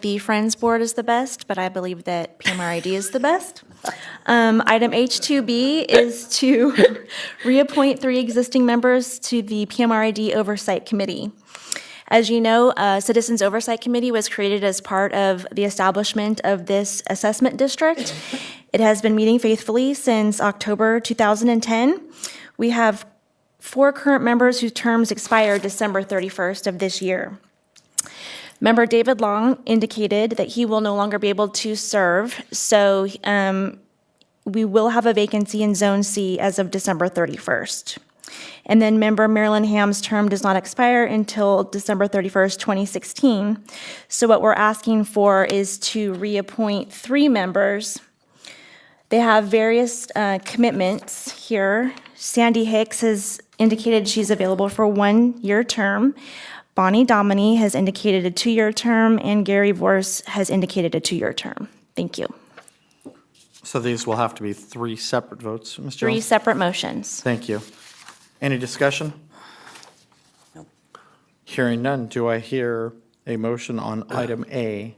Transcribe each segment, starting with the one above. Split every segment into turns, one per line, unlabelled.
the Friends Board is the best, but I believe that PMRID is the best. Um, Item H2B is to reappoint three existing members to the PMRID Oversight Committee. As you know, uh, Citizens Oversight Committee was created as part of the establishment of this assessment district. It has been meeting faithfully since October 2010. We have four current members whose terms expire December 31st of this year. Member David Long indicated that he will no longer be able to serve, so um, we will have a vacancy in Zone C as of December 31st. And then member Marilyn Ham's term does not expire until December 31st, 2016. So what we're asking for is to reappoint three members. They have various uh, commitments here. Sandy Hicks has indicated she's available for one-year term. Bonnie Dominey has indicated a two-year term, and Gary Vorse has indicated a two-year term. Thank you.
So these will have to be three separate votes, Ms.
Three
Jones?
separate motions.
Thank you. Any discussion? Hearing none, do I hear a motion on item A?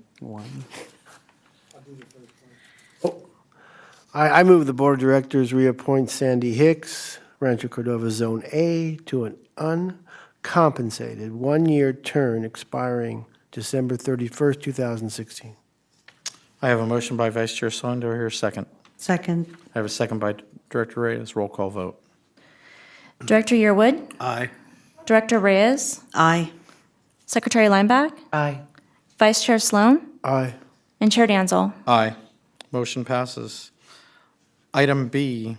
I, I move the Board of Directors reappoint Sandy Hicks, Rancho Cordova Zone A, to an uncompensated one-year term expiring December 31st, 2016.
I have a motion by Vice Chair Sloan, do I hear a second?
Second,
I have a second by Director Reyes, roll call vote.
Director Yearwood?
Aye.
Director Reyes?
aye.
Secretary Lineback?
Aye.
Vice Chair Sloan?
Aye.
And Chair Danzel?
Aye. Motion passes. Item B,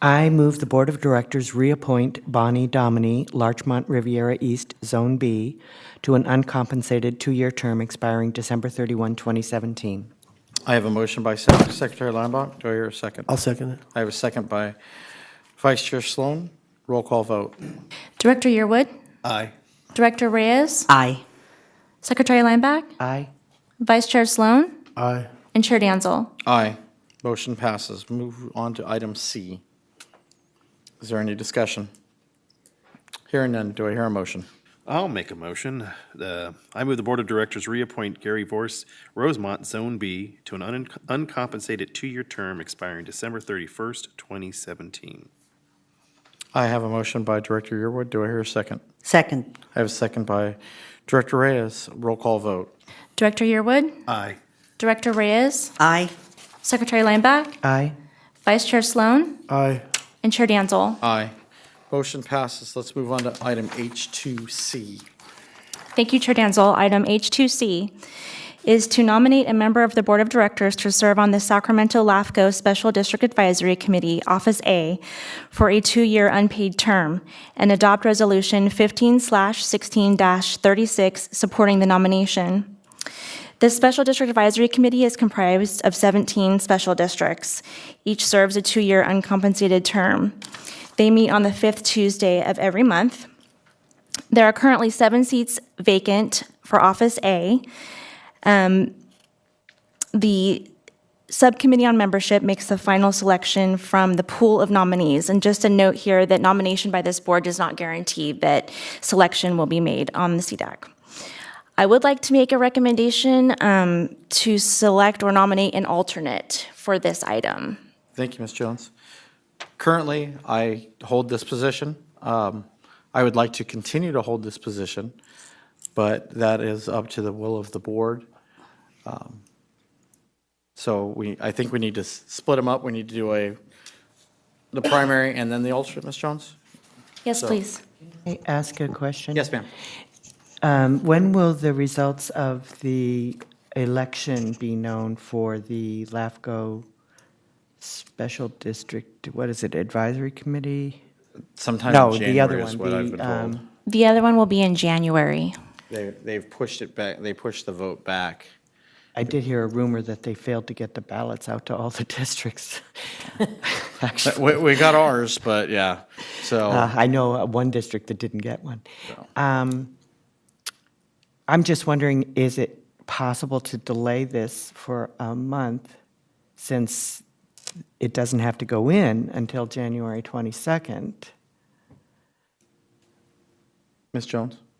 I move the Board of Directors reappoint Bonnie Dominey, Larchmont Riviera East, Zone B, to an uncompensated two-year term expiring December 31, 2017.
I have a motion by Sec- Secretary Lineback, do I hear a second?
I'll second it.
I have a second by Vice Chair Sloan, roll call vote.
Director Yearwood?
Aye.
Director Reyes?
Aye.
Secretary Lineback?
Aye.
Vice Chair Sloan?
Aye.
And Chair Danzel?
Aye. Motion passes. Move on to item C. Is there any discussion? Hearing none, do I hear a motion?
I'll make a motion. Uh, I move the Board of Directors reappoint Gary Vorse, Rosemont Zone B, to an un- uncompensated two-year term expiring December 31st, 2017.
I have a motion by Director Yearwood. Do I hear a second?
Second,
I have a second by Director Reyes. Roll call vote.
Director Yearwood?
Aye.
Director Reyes?
aye.
Secretary Lineback?
Aye.
Vice Chair Sloan?
Aye.
And Chair Danzel?
Aye. Motion passes. Let's move on to item H2C.
Thank you, Chair Danzel. Item H2C is to nominate a member of the Board of Directors to serve on the Sacramento LAFCO Special District Advisory Committee, Office A, for a two-year unpaid term, and adopt Resolution 15/16-36 supporting the nomination. This Special District Advisory Committee is comprised of 17 special districts. Each serves a two-year uncompensated term. They meet on the fifth Tuesday of every month. There are currently seven seats vacant for Office A. Um, The Subcommittee on Membership makes the final selection from the pool of nominees. And just a note here that nomination by this board does not guarantee that selection will be made on the CDAC. I would like to make a recommendation um, to select or nominate an alternate for this item.
Thank you, Ms. Jones. Currently, I hold this position. Um, I would like to continue to hold this position, but that is up to the will of the board. Um, So we, I think we need to s- split them up. We need to do a, the primary and then the alternate, Ms. Jones?
Yes, please.
May I ask a question?
Yes, ma'am.
Um, When will the results of the election be known for the LAFCO Special District, what is it, Advisory Committee?
Sometime
No,
in
the other
Uh, January
one.
is what I've
the,
been told.
um,
The other one will be in January.
They, they've pushed it back, they pushed the vote back.
I did hear a rumor that they failed to get the ballots out to all the districts. Actually.
We, we got ours, but yeah, so.
Uh, I know uh, one district that didn't get one. Um, I'm just wondering, is it possible to delay this for a month since it doesn't have to go in until January 22nd?
Ms. Jones?